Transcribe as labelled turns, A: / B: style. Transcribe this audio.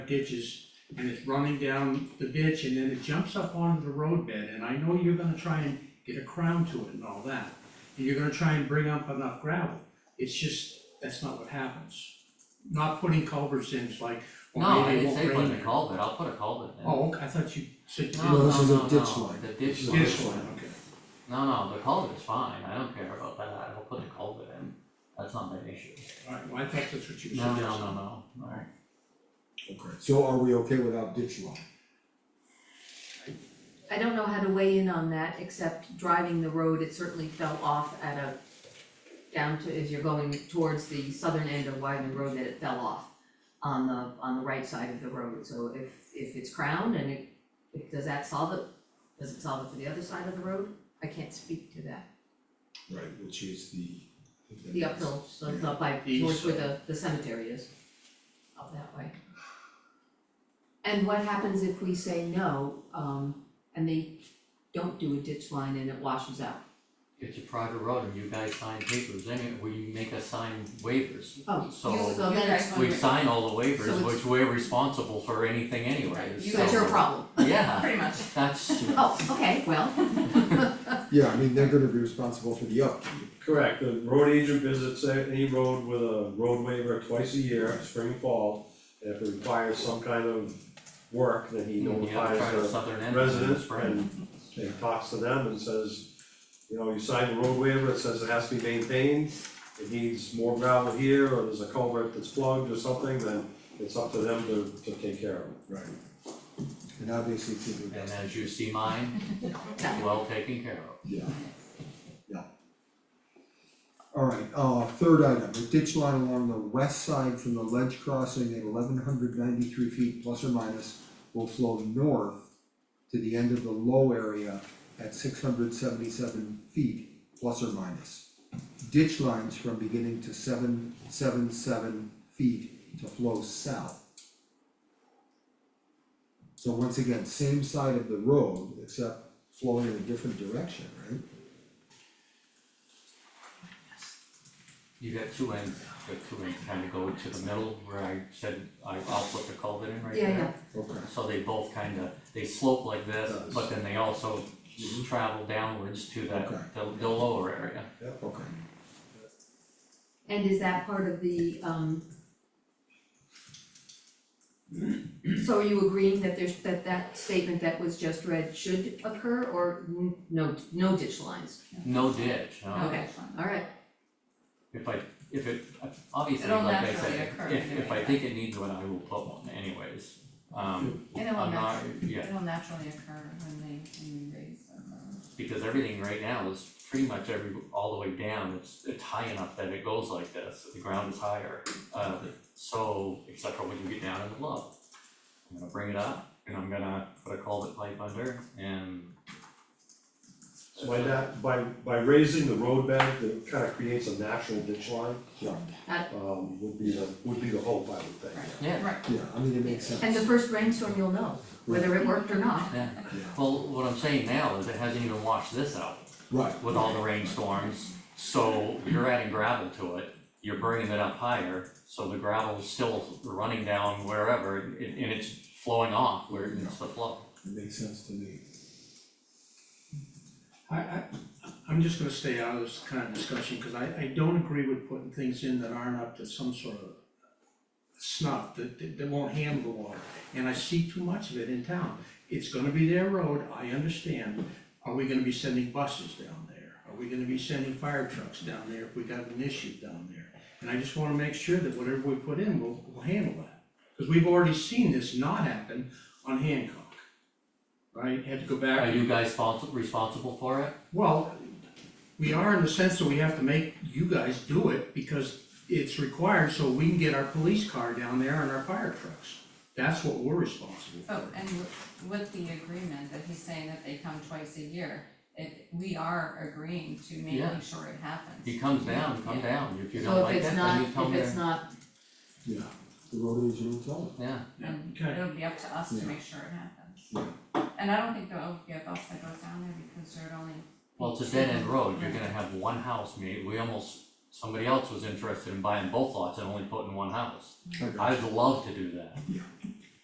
A: ditches and it's running down the ditch and then it jumps up onto the roadbed, and I know you're gonna try and get a crown to it and all that. And you're gonna try and bring up enough gravel, it's just, that's not what happens. Not putting culverts in is like,
B: No,
A: well,
B: I
A: maybe it
B: didn't
A: won't
B: say
A: rain
B: put in a
A: there.
B: culvert, I'll put a culvert in.
A: Oh, okay, I thought you said.
B: No,
A: you-
C: No, this
B: no,
C: is a
B: no,
C: ditch
B: no,
C: line.
B: the ditch line.
A: This one, okay.
B: No, no, the culvert's fine, I don't care about that, I'll put a culvert in, that's not my issue.
A: Alright, well, I thought that's what you were
B: No,
A: suggesting.
B: no, no, no, alright.
C: Okay, so are we okay without ditch line?
D: I don't know how to weigh in on that, except driving the road, it certainly fell off at a, down to, as you're going towards the southern end of Wyven Road, that it fell off on the, on the right side of the road, so if, if it's crowned and it, if, does that solve it? Does it solve it for the other side of the road? I can't speak to that,
C: Right, which is the. I think that
D: the
C: is-
D: uphill, so it's up by,
A: East
D: towards where the, the cemetery is, up that way. And what happens if we say no, um, and they don't do a ditch line and it washes out?
B: It's a private road and you guys sign papers, anyway, we make us sign waivers.
D: Oh, you,
B: So
D: so then it's,
E: guys
B: we sign all the
D: So
B: waivers,
D: it's-
B: which we're responsible for anything anyway,
E: Right, you
D: so it's your problem.
B: Yeah,
E: Pretty much.
B: that's,
D: Oh, okay, well,
C: Yeah, I mean, they're gonna be responsible for the upkeep.
F: Correct, the road agent visits any road with a road waiver twice a year, spring, fall. And if it requires some kind of work, then he
B: you have to try the
F: notifies
B: southern
F: the
B: end of the
F: residents
B: spring.
F: and and talks to them and says, you know, you signed the road waiver, it says it has to be maintained. It needs more gravel here, or there's a culvert that's plugged or something, then it's up to them to to take care of it.
C: Right. And obviously it's in the
B: And
C: best,
B: as you see mine, well taken care of.
C: yeah, yeah. Alright, uh, third item, the ditch line along the west side from the ledge crossing at eleven hundred ninety-three feet plus or minus will flow north to the end of the low area at six hundred seventy-seven feet plus or minus. Ditch lines from beginning to seven, seven, seven feet to flow south. So once again, same side of the road, except flowing in a different direction, right?
B: You got two ends, the two ends kind of go to the middle where I said I I'll put the culvert in right there.
D: yeah, yeah,
C: Okay.
B: So they both kind of, they slope like this,
C: Yes.
B: but then they also travel downwards to
C: Okay.
B: that, the the lower area.
C: Okay,
D: and is that part of the, um. So are you agreeing that there's, that that statement that was just read should occur, or n- no, no ditch lines?
B: No ditch, no.
D: Okay. Alright,
B: If I, if it, obviously,
E: It'll
B: like I
E: naturally
B: said,
E: occur
B: if if I
E: anyway.
B: think it needs one, I will put one anyways. Um,
E: And it will
B: I'm not,
E: naturally,
B: yeah,
E: it'll naturally occur when they, when we raise them.
B: because everything right now is pretty much every, all the way down, it's it's high enough that it goes like this, the ground is higher. Uh, so, except for when you get down in the bluff. I'm gonna bring it up and I'm gonna put a culvert pipe under and.
F: So by that, by by raising the road bed, it kind of creates a natural ditch line,
C: yeah,
F: um, would be the, would be the hope, I would think.
B: Yeah,
E: Right,
C: yeah, I mean, it makes sense.
D: and the first rainstorm you'll know whether it worked or not,
B: yeah,
C: Yeah.
B: well, what I'm saying now is it hasn't even washed this out
C: Right,
B: with all the rainstorms, so you're adding gravel to it. You're bringing it up higher, so the gravel's still running down wherever and and it's flowing off where it's the flow.
C: it makes sense to me.
A: I, I, I'm just gonna stay out of this kind of discussion, cause I, I don't agree with putting things in that aren't up to some sort of snuff, that, that, that won't handle the water, and I see too much of it in town. It's gonna be their road, I understand, are we gonna be sending buses down there? Are we gonna be sending fire trucks down there if we got an issue down there? And I just wanna make sure that whatever we put in, will will handle that, cause we've already seen this not happen on Hancock. Right, had to go back.
B: Are you guys respons- responsible for it?
A: Well, we are in the sense that we have to make you guys do it because it's required so we can get our police car down there and our fire trucks. That's what we're responsible
E: oh,
A: for.
E: and with- with the agreement that he's saying that they come twice a year, it, we are agreeing to
B: Yeah.
E: making sure it happens.
B: He comes down, come
E: Yeah.
B: down, if you don't
D: so if
B: like
D: it's
B: that, then
D: not,
B: you come
D: if
B: there.
D: it's not,
C: Yeah, the road agent will tell it.
B: Yeah,
E: And
A: Okay.
E: it'll be up to us to
C: Yeah.
E: make sure it happens.
C: Yeah.
E: And I don't think there'll be a bus that goes down there because there'd only.
B: well, it's a dead end road, you're gonna have one house, maybe, we almost, somebody else was interested in buying both lots and only putting one house.
C: I got
B: I'd love to do that.
C: Yeah.